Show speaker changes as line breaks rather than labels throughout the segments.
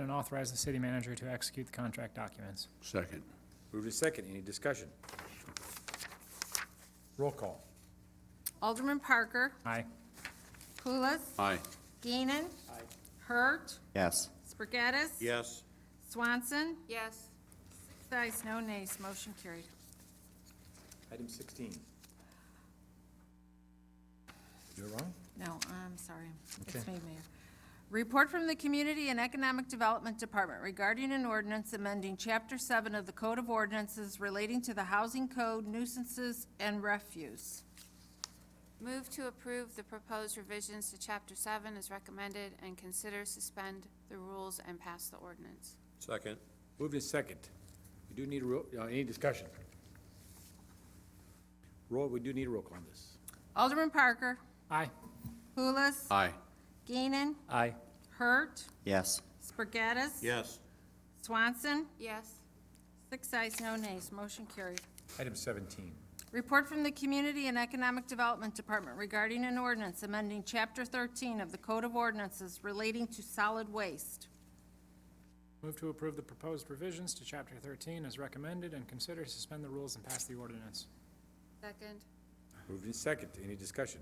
and authorize the city manager to execute the contract documents.
Second.
Moved in second, any discussion? Roll call.
Alderman Parker,
Aye.
Pulis,
Aye.
Geenan. Hurt,
Yes.
Spargattis.
Yes.
Swanson,
yes,
six ayes, no nays, motion carried.
Item sixteen. You're wrong?
No, I'm sorry. It's me, Mayor. Report from the Community and Economic Development Department regarding an ordinance amending Chapter 7 of the Code of Ordinances relating to the Housing Code nuisances and refuse.
move to approve the proposed revisions to chapter seven as recommended and consider suspend the rules and pass the ordinance.
Second.
Moved in second. We do need a, ro- uh, any discussion? Roy, we do need a roll call on this.
Alderman Parker,
Aye.
Pulis,
Aye.
Geenan,
Aye.
Hurt,
Yes.
Spargattis.
Yes.
Swanson,
Yes,
six ayes, no nays, motion carried.
Item seventeen.
Report from the Community and Economic Development Department regarding an ordinance amending Chapter 13 of the Code of Ordinances relating to solid waste.
Move to approve the proposed revisions to Chapter 13 as recommended and consider to suspend the rules and pass the ordinance.
second,
Moved in second, any discussion?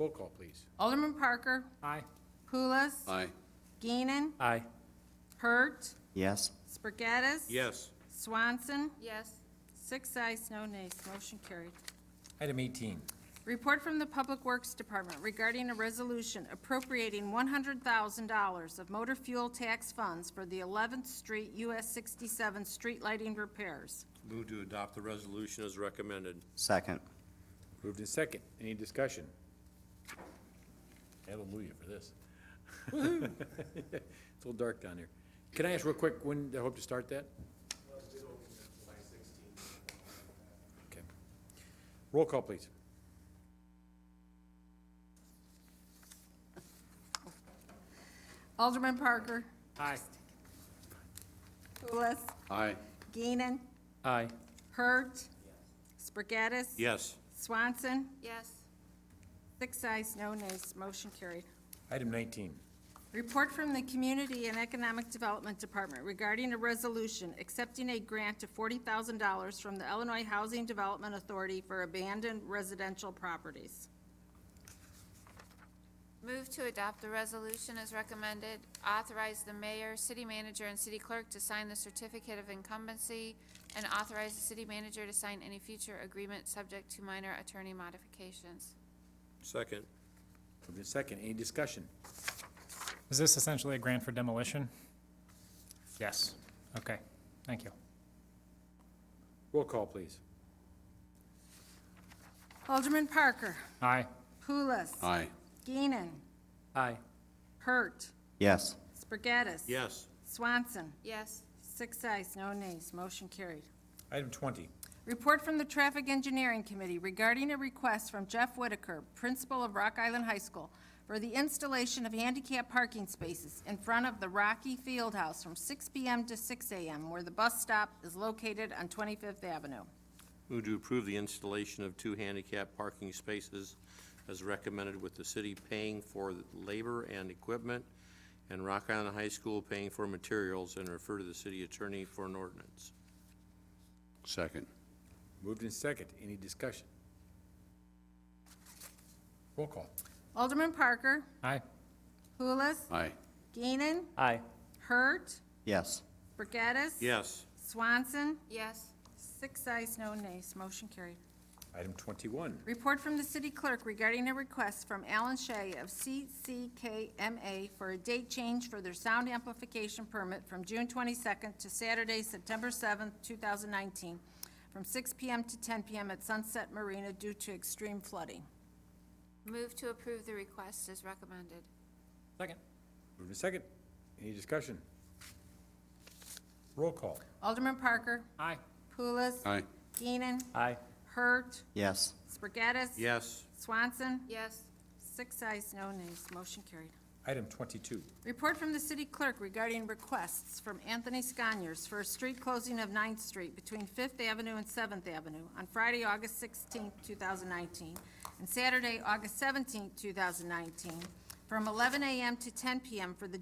Roll call, please.
Alderman Parker,
Aye.
Pulis.
Aye.
Geenan.
Aye.
Hurt.
Yes.
Spargattis.
Yes.
Swanson.
yes,
Six ayes, no nays. Motion carried.
Item eighteen.
Report from the Public Works Department regarding a resolution appropriating $100,000 of motor fuel tax funds for the 11th Street US 67 street lighting repairs.
Move to adopt the resolution as recommended.
Second.
Moved in second, any discussion? Hallelujah for this. It's a little dark down here. Can I ask real quick, when they hope to start that? Okay. Roll call, please.
Alderman Parker.
Aye.
Pulis.
Aye.
Geenan.
Aye.
Hurt. Spargattis.
Yes.
Swanson.
yes,
Six ayes, no nays. Motion carried.
Item nineteen.
Report from the Community and Economic Development Department regarding a resolution accepting a grant of forty thousand dollars from the Illinois Housing Development Authority for abandoned residential properties.
move to adopt the resolution as recommended, authorize the mayor, city manager, and city clerk to sign the certificate of incumbency, and authorize the city manager to sign any future agreement subject to minor attorney modifications.
Second.
Moved in second, any discussion?
Is this essentially a grant for demolition? Yes. Okay, thank you.
Roll call, please.
Alderman Parker.
Aye.
Pulis.
Aye.
Geenan.
Aye.
Hurt.
Yes.
Spargattis.
Yes.
Swanson.
Yes,
Six ayes, no nays. Motion carried.
Item twenty.
Report from the Traffic Engineering Committee regarding a request from Jeff Whitaker, Principal of Rock Island High School, for the installation of handicap parking spaces in front of the Rocky Field House from 6 PM to 6 AM, where the bus stop is located on 25th Avenue.
Move to approve the installation of two handicap parking spaces as recommended with the city paying for labor and equipment and Rock Island High School paying for materials and refer to the city attorney for an ordinance.
Second.
Moved in second, any discussion? Roll call.
Alderman Parker,
Aye.
Pulis,
Aye.
Geenan,
Aye.
Hurt,
Yes.
Brigadis.
Yes.
Swanson,
yes,
six ayes, no nays. Motion carried.
Item twenty-one.
Report from the city clerk regarding a request from Alan Shea of CCKMA for a date change for their sound amplification permit from June 22nd to Saturday, September 7th, 2019, from 6 PM to 10 PM at Sunset Marina due to extreme flooding.
move to approve the request as recommended.
Second.
Moved in second, any discussion? Roll call.
Alderman Parker,
Aye.
Pulis.
Aye.
Geenan,
Aye.
Hurt,
Yes.
Spargattis.
Yes.
Swanson,
Yes,
six ayes, no nays, motion carried.
Item twenty-two.
Report from the city clerk regarding requests from Anthony Scanyers for a street closing of 9th Street between Fifth Avenue and Seventh Avenue on Friday, August 16, thousand nineteen, and Saturday, August 17, thousand nineteen, from eleven AM to ten PM for the